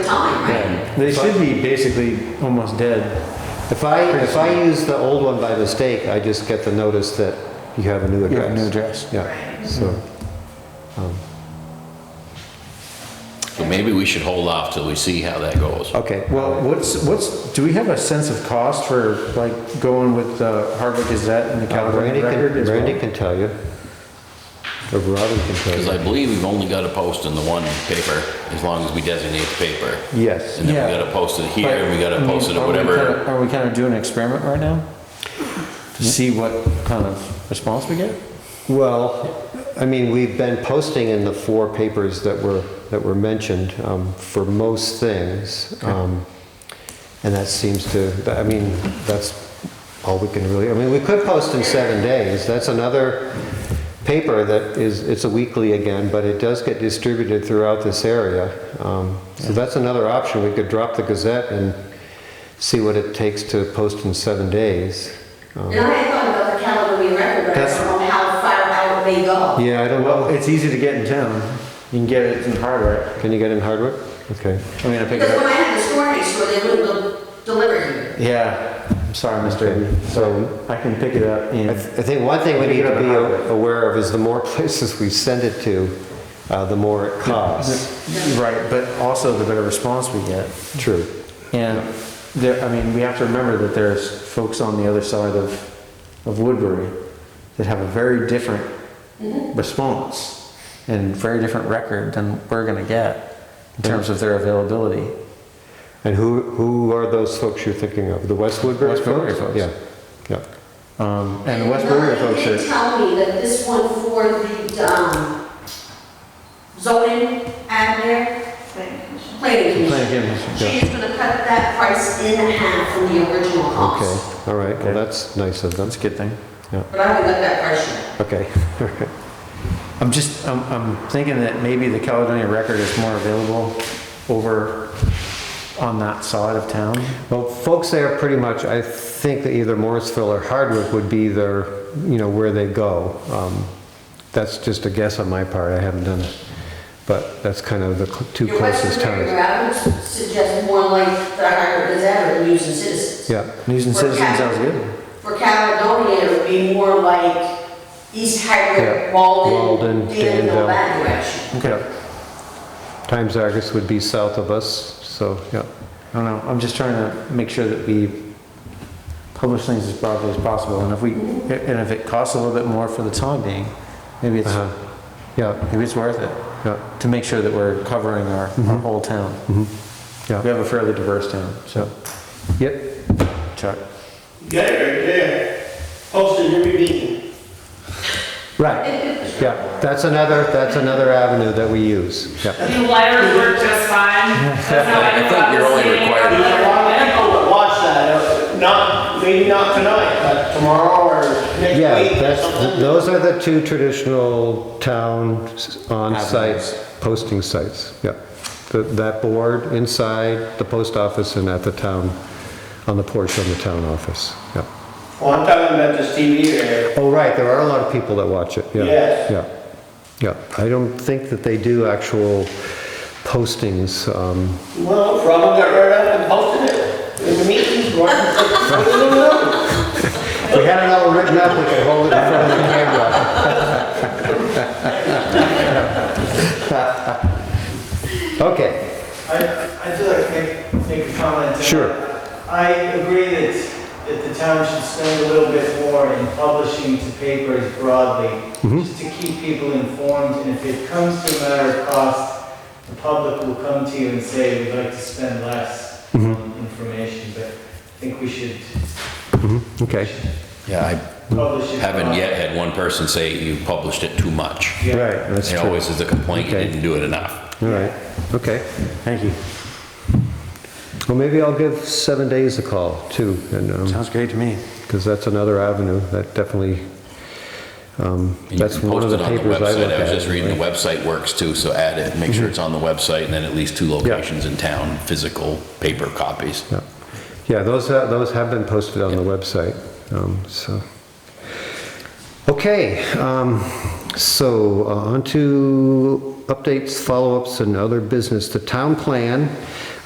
They should be basically almost dead. If I, if I use the old one by mistake, I just get the notice that you have a new You have a new address. address. Yeah, so, So maybe we should hold off till we see how that goes. okay, well, Well, what's, what's, do we have a sense of cost for like going with the Hardwick Gazette and the uh, Randy California Record can, as Randy well? can tell you. Or Robin can tell Because I you. believe we've only got to post in the one paper, as long as we designate the paper. Yes, And then we Yeah. got to post it here, and we got But, I to mean, post it are at we whatever. kinda- Are we kind of doing an experiment right now? To see what kind of response we get? well, I mean, we've been posting in the four papers that were, that were mentioned um, for most things. um, And that seems to, that- I mean, that's all we can really, I mean, we could post in seven days. That's another paper that is, it's a weekly again, but it does get distributed throughout this area. Um, So that's another option. We could drop the Gazette and see what it takes to post in seven days. Um, And I had thought about the Caledonia record, but I That's- don't know how far out they go. Yeah, I don't Well, know. it's easy to get in town. You can get it in Hardwick. Can you get in Hardwick? Okay. I mean, I pick it Because when up. I had the store next door, they wouldn't del- deliver here. Yeah, I'm sorry, Mr. Okay, Eby. so- So I can pick it up in. I th- I think one thing we need to be a- aware of is the more places we send it to, uh, the more it costs. Right, but also the better response we get. True. And there, I mean, we have to remember that there's folks on the other side of, of Woodbury that have a very different response and very different record than we're gonna get in terms of their availability. And who, who are those folks you're thinking of? The West Woodbury West Woodbury folks? folks. Yeah, yeah. Mm-hmm. Um, and the West Woodbury folks Nobody did are, tell me that this one for the, um, zoning ad there, planning playing commission. games. She is gonna cut that price in half from the original Okay, cost. all right, Okay. well, that's nice of them. That's a good thing. But I haven't got that price yet. Okay, all right. I'm just, I'm, I'm thinking that maybe the Caledonia Record is more available over on that side of town. Well, folks there pretty much, I think that either Morrisville or Hardwick would be their, you know, where they go. Um, That's just a guess on my part, I haven't done it, but that's kind of the cl- two Your closest Western Reserve, towns. I would suggest more like the Harvard Gazette or the News and Citizens. Yeah, News and For Citizen Cal- sounds good. For Caledonia, it would be more like East Yeah. Harvard, Walden, Walden, Danville. Danville, that direction. Okay. Times Argus would be south of us, so, yeah. I don't know, I'm just trying to make sure that we publish things as broadly as possible, and if we, and if it costs a little bit more for the time being, maybe it's, Uh-huh. Yeah, maybe it's worth it, yeah, to make sure that we're covering our, our whole town. We yeah. have a fairly diverse town, so, Yep, Chuck. Yeah, right there. Posted every meeting. right, yeah. That's another, that's another avenue that we use, yeah. The letters work just fine. That's how I I knew think I you're was only sitting in required- the A lot of "Oh, people would watch that, uh, not, maybe not tonight, but tomorrow or next Yeah, week or that's, something. those are the two traditional town s- on-site posting sites, yeah. The- That board inside the post office and at the town, on the porch on the town office, yeah. Well, I'm talking about this TV here. Oh, right, there are a lot of people that watch it, yeah. Yes. Yeah, yeah. I don't think that they do actual postings, um, Well, Robin got right up and posted it in the meeting. What what do you know? If we had it all written up, we could hold it in front of the camera. Okay, I, I feel like I make, make a comment. Sure. I agree that, that the town should spend a little bit more in publishing to papers broadly, just to keep people informed, and if it comes to a matter of cost, the public will come to you and say, we'd like to spend less on information, but I think we should okay, Yeah, I publish it. haven't broadly. yet had one person say you published it too much. Yeah. right, that's It true. always is a complaint, you Okay. didn't do it enough. All right, okay. Thank you. Well, maybe I'll give seven days a call too, and, um, Sounds great to me. because that's another avenue, that definitely, um, And you that's can one of post the it on the papers I look website. at. Mm-hmm. I was just reading, the anyway. website works too, so add it, make sure it's on the website, and then at least two locations in town, physical paper copies. Yeah. Yeah, those, uh, those have been posted on the website, um, so. Okay, um, so uh, on to updates, follow-ups, and other business. The town plan